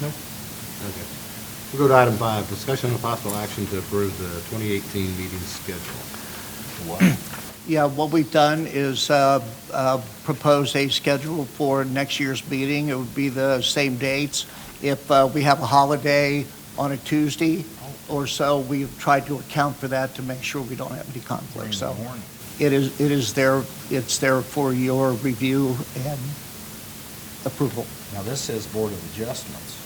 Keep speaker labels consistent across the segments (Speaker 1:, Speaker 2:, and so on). Speaker 1: Nope. Okay. We'll go to item five, discussion and possible action to approve the 2018 meeting schedule.
Speaker 2: Yeah, what we've done is uh, uh, propose a schedule for next year's meeting. It would be the same dates. If uh, we have a holiday on a Tuesday or so, we've tried to account for that to make sure we don't have any conflicts. So it is, it is there, it's there for your review and approval.
Speaker 3: Now, this says Board of Adjustments.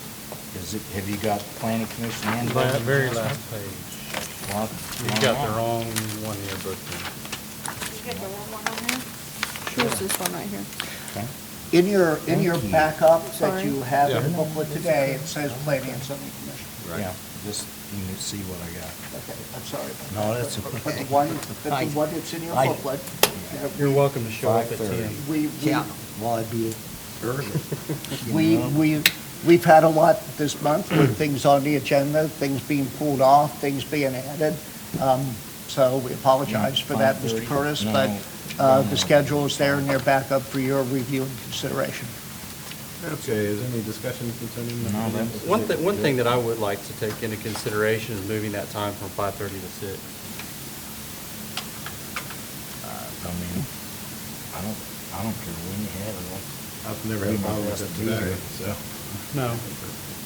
Speaker 3: Is it, have you got Planning Commission and? Board of
Speaker 4: That very last
Speaker 3: Adjustments?
Speaker 4: page.
Speaker 3: Well,
Speaker 4: You've got the wrong one here, but
Speaker 5: You got the wrong one on there? Here's this one right here.
Speaker 3: Okay.
Speaker 2: In your, in
Speaker 3: Thank
Speaker 2: your
Speaker 3: you.
Speaker 2: backup that
Speaker 5: Sorry.
Speaker 2: you have in
Speaker 4: Yeah.
Speaker 2: the booklet today, it says Planning and Zoning Commission.
Speaker 3: Yeah, just, you can see what I got.
Speaker 2: Okay, I'm sorry.
Speaker 3: No, that's
Speaker 2: But- But the
Speaker 3: okay.
Speaker 2: one, but the one that's in your
Speaker 3: I-
Speaker 2: booklet,
Speaker 4: You're welcome to show up at 10.
Speaker 3: 5:30.
Speaker 2: we, we,
Speaker 3: well, I'd be early.
Speaker 2: we,
Speaker 3: You know?
Speaker 2: we, we've had a lot this month with things on the agenda, things being pulled off, things being added. Um, So we apologize for that, Mr.
Speaker 3: 5:30.
Speaker 2: Curtis,
Speaker 3: No,
Speaker 2: but uh,
Speaker 3: no.
Speaker 2: the schedule is there and they're back up for your review and consideration.
Speaker 1: Okay, is there any discussion concerning the
Speaker 3: No,
Speaker 1: meeting?
Speaker 3: that's-
Speaker 4: One thing, one thing that I would like to take into consideration is moving that time from 5:30 to 6.
Speaker 3: I mean, I don't, I don't care when you have it.
Speaker 1: I've never had a problem with it today, so.
Speaker 4: No.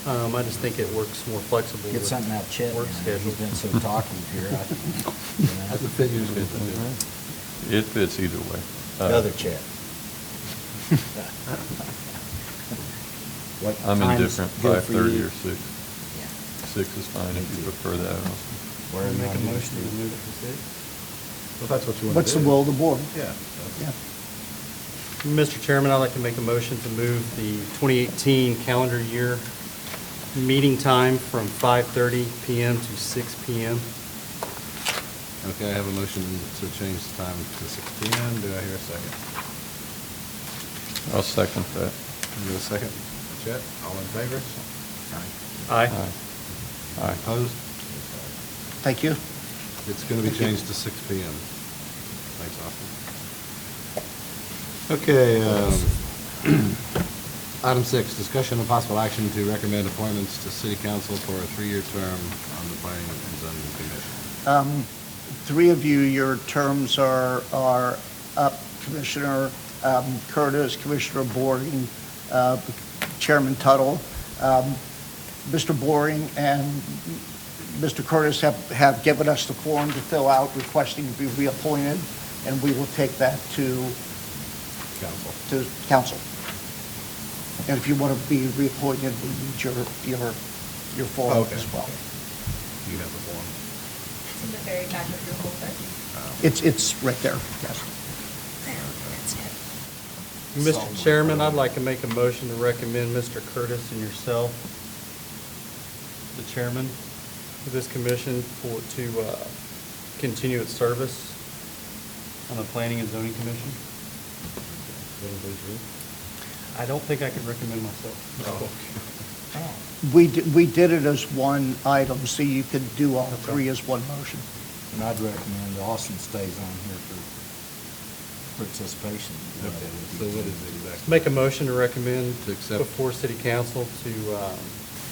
Speaker 4: Um, I just think it works more flexible
Speaker 3: Get something out of Chet,
Speaker 4: with
Speaker 3: man.
Speaker 4: work
Speaker 3: He's
Speaker 4: schedule.
Speaker 3: been so talkative here. I- you know.
Speaker 1: That's a fit you fit into.
Speaker 6: It fits either way.
Speaker 3: The other Chet. What
Speaker 6: I'm
Speaker 3: time's
Speaker 6: indifferent,
Speaker 3: good for
Speaker 6: 5:30
Speaker 3: you?
Speaker 6: or 6.
Speaker 3: Yeah.
Speaker 6: 6 is fine if you prefer that, Allison.
Speaker 3: Where
Speaker 4: I'll
Speaker 3: you want
Speaker 4: Make a
Speaker 3: me to
Speaker 4: motion to
Speaker 3: do?
Speaker 4: move it to 6.
Speaker 1: Well, that's what you want to do.
Speaker 2: What's the will of the board?
Speaker 1: Yeah.
Speaker 2: Yeah.
Speaker 4: Mr. Chairman, I'd like to make a motion to move the 2018 calendar year meeting time from 5:30 PM to 6 PM.
Speaker 1: Okay, I have a motion to change the time to 6 PM. Do I hear a second?
Speaker 6: I'll second that.
Speaker 1: Is there a second? Chet, all in favor?
Speaker 4: Aye.
Speaker 6: Aye. Aye.
Speaker 1: Opposed?
Speaker 2: Thank you.
Speaker 1: It's going to be changed to 6 PM. Thanks, Austin. Okay, uh, um, item six, discussion of possible action to recommend appointments to city council for a three-year term on the planning and zoning commission.
Speaker 2: Um, Three of you, your terms are, are up, Commissioner um, Curtis, Commissioner Boring, uh, Chairman Tuttle. Um, Mr. Boring and Mr. Curtis have, have given us the form to fill out requesting to be reappointed, and we will take that to,
Speaker 1: Council.
Speaker 2: to council. And if you want to be reappointed, we need your, your, your form
Speaker 1: Okay.
Speaker 2: as well.
Speaker 1: You have the form.
Speaker 5: It's in the very back of your folder.
Speaker 2: It's, it's right there, yes.
Speaker 4: Mr. Chairman, I'd like to make a motion to recommend Mr. Curtis and yourself, the chairman of this commission, for, to uh, continue its service on the Planning and Zoning Commission. I don't think I could recommend myself.
Speaker 3: Oh,
Speaker 2: We, di- we did it as one item, so you can do all three as one motion.
Speaker 3: And I'd recommend Austin stays on here for participation.
Speaker 1: Okay, so what is it exactly?
Speaker 4: Make a motion to recommend
Speaker 1: To accept.
Speaker 4: before city council to um,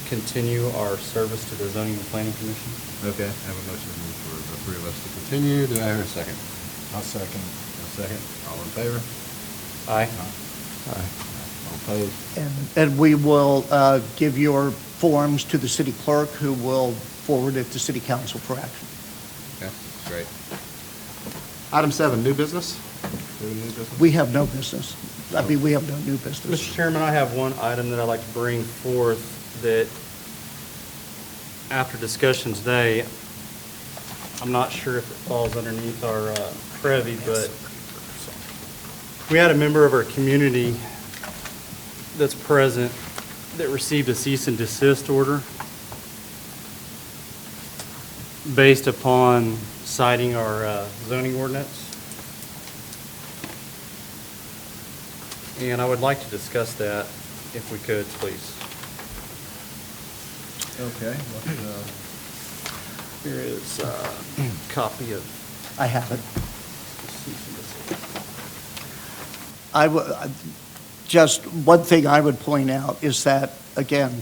Speaker 4: continue our service to the Zoning and Planning Commission.
Speaker 1: Okay, I have a motion for the three of us to continue. Do I hear a second?
Speaker 3: I'll second.
Speaker 1: A second. All in favor?
Speaker 4: Aye.
Speaker 6: Aye.
Speaker 1: All opposed?
Speaker 2: And, and we will uh, give your forms to the city clerk, who will forward it to city council for action.
Speaker 1: Okay, great. Item seven, new business? Do we have new business?
Speaker 2: We have no business. I mean, we have no new business.
Speaker 4: Mr. Chairman, I have one item that I'd like to bring forth that, after discussion today, I'm not sure if it falls underneath our uh, privy, but we had a member of our community that's present that received a cease and desist order based upon citing our uh, zoning ordinance. And I would like to discuss that if we could, please.
Speaker 1: Okay, what, uh,
Speaker 4: Here is a copy of
Speaker 2: I have it.
Speaker 4: cease and desist.
Speaker 2: I, wo- I- just one thing I would point out is that, again,